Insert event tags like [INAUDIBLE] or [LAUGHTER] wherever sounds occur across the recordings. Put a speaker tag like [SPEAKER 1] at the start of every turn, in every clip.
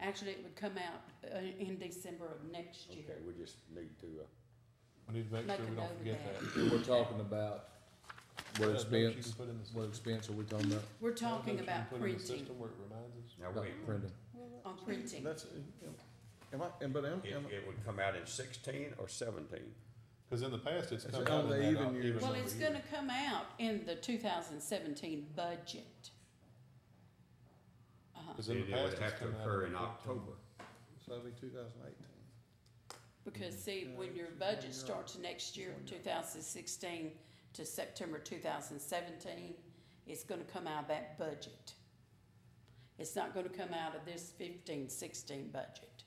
[SPEAKER 1] Actually, it would come out uh, in December of next
[SPEAKER 2] Okay,
[SPEAKER 1] year.
[SPEAKER 2] we just need to, uh,
[SPEAKER 3] We need to make
[SPEAKER 1] Make
[SPEAKER 3] sure
[SPEAKER 1] a
[SPEAKER 3] we
[SPEAKER 1] note
[SPEAKER 3] don't
[SPEAKER 1] of
[SPEAKER 3] forget
[SPEAKER 1] that.
[SPEAKER 3] that.
[SPEAKER 4] We're taltalking about what
[SPEAKER 3] Uh, notes you
[SPEAKER 4] expense,
[SPEAKER 3] can put in the
[SPEAKER 4] what
[SPEAKER 3] system.
[SPEAKER 4] expense are we talking about?
[SPEAKER 1] We're
[SPEAKER 3] Uh,
[SPEAKER 1] talking
[SPEAKER 3] notes you can
[SPEAKER 1] about
[SPEAKER 3] put in the
[SPEAKER 1] printing,
[SPEAKER 3] System where it reminds us.
[SPEAKER 2] now,
[SPEAKER 4] About
[SPEAKER 2] wait,
[SPEAKER 4] printing.
[SPEAKER 1] on printing.
[SPEAKER 5] That's, am I, and but am,
[SPEAKER 2] it,
[SPEAKER 5] am,
[SPEAKER 2] it would come out in sixteen or seventeen?
[SPEAKER 3] Cause in the past, it's
[SPEAKER 5] It's
[SPEAKER 3] come
[SPEAKER 5] on
[SPEAKER 3] out in
[SPEAKER 5] the
[SPEAKER 3] that
[SPEAKER 5] even
[SPEAKER 3] op-
[SPEAKER 5] years.
[SPEAKER 3] even
[SPEAKER 1] Well,
[SPEAKER 3] number
[SPEAKER 1] it's
[SPEAKER 3] year.
[SPEAKER 1] gonna come out in the two thousand seventeen budget. Uh-huh,
[SPEAKER 3] Cause in the
[SPEAKER 2] It would
[SPEAKER 3] past, it's
[SPEAKER 2] have to
[SPEAKER 3] come out.
[SPEAKER 2] occur in
[SPEAKER 3] the-
[SPEAKER 2] October.
[SPEAKER 5] so it'll be two thousand eighteen.
[SPEAKER 1] because see, when your budget starts next year, two thousand sixteen to September two thousand seventeen, it's gonna come out of that budget. It's not gonna come out of this fifteen, sixteen budget.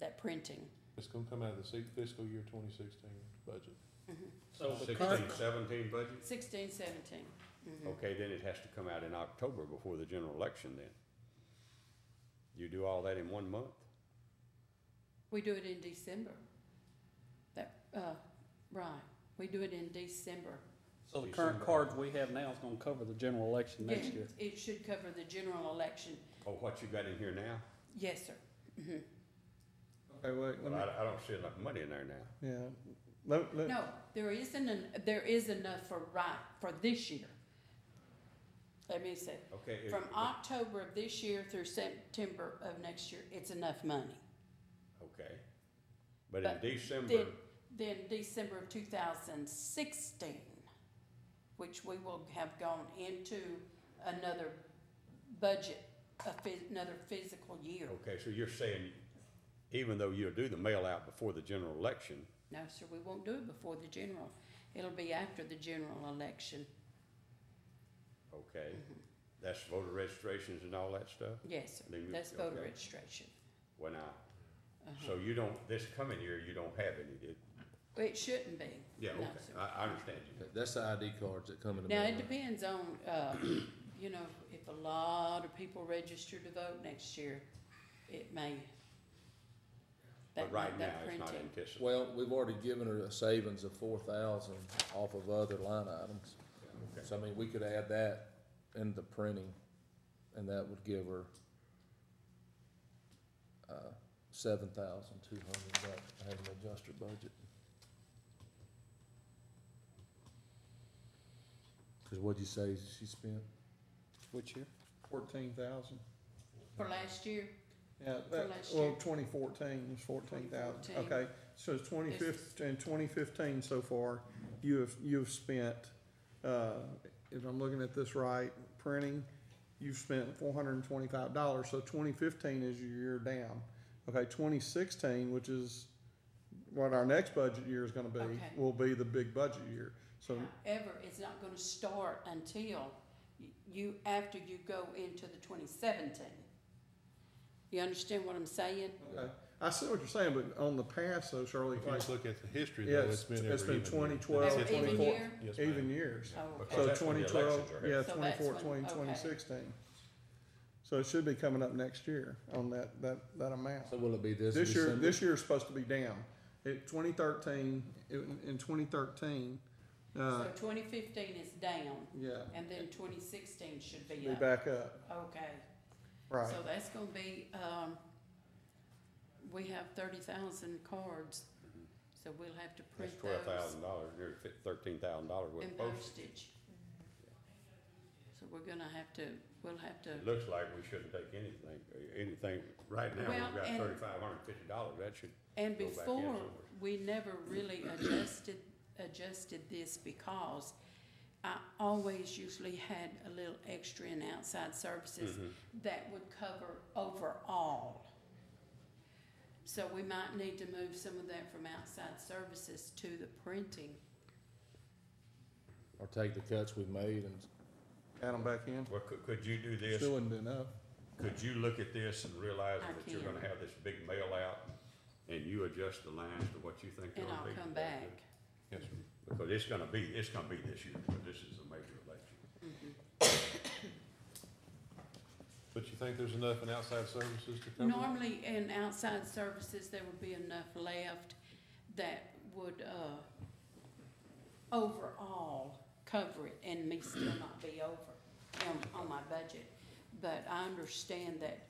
[SPEAKER 1] That printing.
[SPEAKER 3] It's gonna come out of the se- fiscal year twenty sixteen budget.
[SPEAKER 5] So the
[SPEAKER 2] Sixteen,
[SPEAKER 5] current,
[SPEAKER 2] seventeen budget?
[SPEAKER 1] Mm-hmm. Sixteen, seventeen. Mhm.
[SPEAKER 2] Okay, then it has to come out in October before the general election then. You do all that in one month?
[SPEAKER 1] We do it in December. That, uh, right, we do it in December.
[SPEAKER 6] So the
[SPEAKER 2] You
[SPEAKER 6] current
[SPEAKER 2] see-
[SPEAKER 6] card we have now is gonna cover the general election next
[SPEAKER 1] Yeah,
[SPEAKER 6] year.
[SPEAKER 1] It should cover the general election,
[SPEAKER 2] Oh, what you got in here now?
[SPEAKER 1] yes, sir. Mhm.
[SPEAKER 5] hey, wait, let
[SPEAKER 2] Well,
[SPEAKER 5] me,
[SPEAKER 2] I, I don't see enough money in there now.
[SPEAKER 5] yeah, let, let,
[SPEAKER 1] No, there isn't, an- there is enough for right, for this year. Let me say,
[SPEAKER 2] Okay. if-
[SPEAKER 1] from October of this year through September of next year, it's enough money.
[SPEAKER 2] Okay. But in
[SPEAKER 1] But
[SPEAKER 2] December,
[SPEAKER 1] Then, then December of two thousand sixteen, which we will have gone into another budget, a phys- another physical year.
[SPEAKER 2] okay, so you're saying even though you'll do the mail out before the general election,
[SPEAKER 1] No, sir, we won't do it before the general. It'll be after the general election,
[SPEAKER 2] okay, that's voter registrations and all that stuff?
[SPEAKER 1] yes, sir.
[SPEAKER 2] Then you-
[SPEAKER 1] That's voter
[SPEAKER 2] okay.
[SPEAKER 1] registration.
[SPEAKER 2] When I,
[SPEAKER 1] Uh-huh.
[SPEAKER 2] so you don't, this coming year, you don't have any,
[SPEAKER 1] Well,
[SPEAKER 2] did?
[SPEAKER 1] Uh-huh. It shouldn't be.
[SPEAKER 2] Yeah,
[SPEAKER 1] No,
[SPEAKER 2] okay,
[SPEAKER 1] sir.
[SPEAKER 2] I, I understand you.
[SPEAKER 4] That's the ID cards that come in the
[SPEAKER 1] Now, it
[SPEAKER 4] mail.
[SPEAKER 1] depends on, uh, [CLEARS THROAT] you know, if a lot of people register to vote next year, it may.
[SPEAKER 2] But
[SPEAKER 1] that-
[SPEAKER 2] right now,
[SPEAKER 1] that
[SPEAKER 2] it's not
[SPEAKER 1] printing-
[SPEAKER 2] anticipated.
[SPEAKER 4] Well, we've already given her a savings of four thousand off of other line items.
[SPEAKER 2] Okay.
[SPEAKER 4] So I mean, we could add that in the printing and that would give her uh, seven thousand two hundred bucks, I haven't adjusted her budget. Cause what'd you say she spent?
[SPEAKER 6] Which year?
[SPEAKER 5] fourteen thousand,
[SPEAKER 1] For last year,
[SPEAKER 5] yeah, that,
[SPEAKER 1] last
[SPEAKER 5] Uh, well,
[SPEAKER 1] year.
[SPEAKER 5] twenty fourteen was fourteen thousand,
[SPEAKER 1] 2014.
[SPEAKER 5] okay. So it's twenty
[SPEAKER 1] This is-
[SPEAKER 5] fifteen, twenty fifteen so far, you have, you have spent, uh, if I'm looking at this right, printing, you've spent four hundred and twenty-five dollars, so twenty fifteen is your year down. Okay, twenty sixteen, which is what our next budget year is gonna be,
[SPEAKER 1] Okay.
[SPEAKER 5] will be the big budget year, so.
[SPEAKER 1] however, it's not gonna start until y- you, after you go into the twenty seventeen. You understand what I'm saying?
[SPEAKER 5] Okay. I see what you're saying, but on the past though, Shirley,
[SPEAKER 3] If you
[SPEAKER 5] like
[SPEAKER 3] just look at the history
[SPEAKER 5] Yeah,
[SPEAKER 3] though,
[SPEAKER 5] it's-
[SPEAKER 3] it's been every
[SPEAKER 5] it's been
[SPEAKER 3] even year.
[SPEAKER 5] 2012,
[SPEAKER 3] It's
[SPEAKER 1] Every
[SPEAKER 3] been-
[SPEAKER 5] even 24.
[SPEAKER 1] year?
[SPEAKER 3] Yes, ma'am.
[SPEAKER 5] even years.
[SPEAKER 1] Oh, okay.
[SPEAKER 2] Because
[SPEAKER 5] So
[SPEAKER 2] that's when the
[SPEAKER 5] twenty twelve,
[SPEAKER 2] elections are
[SPEAKER 5] yeah,
[SPEAKER 2] held.
[SPEAKER 1] So that's
[SPEAKER 5] twenty-four,
[SPEAKER 1] when-
[SPEAKER 5] twenty,
[SPEAKER 1] okay.
[SPEAKER 5] twenty sixteen. So it should be coming up next year on that, that, that amount.
[SPEAKER 4] So will it be this
[SPEAKER 5] This year,
[SPEAKER 4] December?
[SPEAKER 5] this year's supposed to be down. It, twenty thirteen, in, in twenty thirteen, uh,
[SPEAKER 1] So twenty fifteen is down,
[SPEAKER 5] yeah,
[SPEAKER 1] and then twenty sixteen should be
[SPEAKER 5] be
[SPEAKER 1] up.
[SPEAKER 5] back up,
[SPEAKER 1] Okay,
[SPEAKER 5] right.
[SPEAKER 1] so that's gonna be, um, we have thirty thousand cards, so we'll have to
[SPEAKER 2] Mm-hmm. That's
[SPEAKER 1] print
[SPEAKER 2] twelve
[SPEAKER 1] those
[SPEAKER 2] thousand dollars, near thirteen thousand dollars worth
[SPEAKER 1] and
[SPEAKER 2] of postage.
[SPEAKER 1] postage. So we're gonna have to, we'll have to,
[SPEAKER 2] It looks like we shouldn't take anything, anything, right now,
[SPEAKER 1] Well,
[SPEAKER 2] we've got
[SPEAKER 1] and-
[SPEAKER 2] thirty-five hundred and fifty dollars, that should,
[SPEAKER 1] and
[SPEAKER 2] Go back in
[SPEAKER 1] before,
[SPEAKER 2] somewhere.
[SPEAKER 1] we never really adjusted, adjusted this because I always usually had a little extra in outside services
[SPEAKER 2] Mhm.
[SPEAKER 1] that would cover overall. So we might need to move some of that from outside services to the printing.
[SPEAKER 4] Or take the cuts we made and
[SPEAKER 5] Add them back in.
[SPEAKER 2] well, could, could you do this?
[SPEAKER 5] Still wouldn't be enough.
[SPEAKER 2] Could you look at this and realize
[SPEAKER 1] I
[SPEAKER 2] that you're
[SPEAKER 1] can.
[SPEAKER 2] gonna have this big mail out and you adjust the lines to what you think
[SPEAKER 1] And
[SPEAKER 2] they'll be?
[SPEAKER 1] I'll come back.
[SPEAKER 3] Yes, ma'am.
[SPEAKER 2] Because it's gonna be, it's gonna be this year, but this is a major election.
[SPEAKER 1] Mm-hmm.
[SPEAKER 3] But you think there's enough in outside services to cover? it?
[SPEAKER 1] Normally, in outside services, there would be enough left that would, uh, overall cover it and me still not be over on, on my budget. But I understand that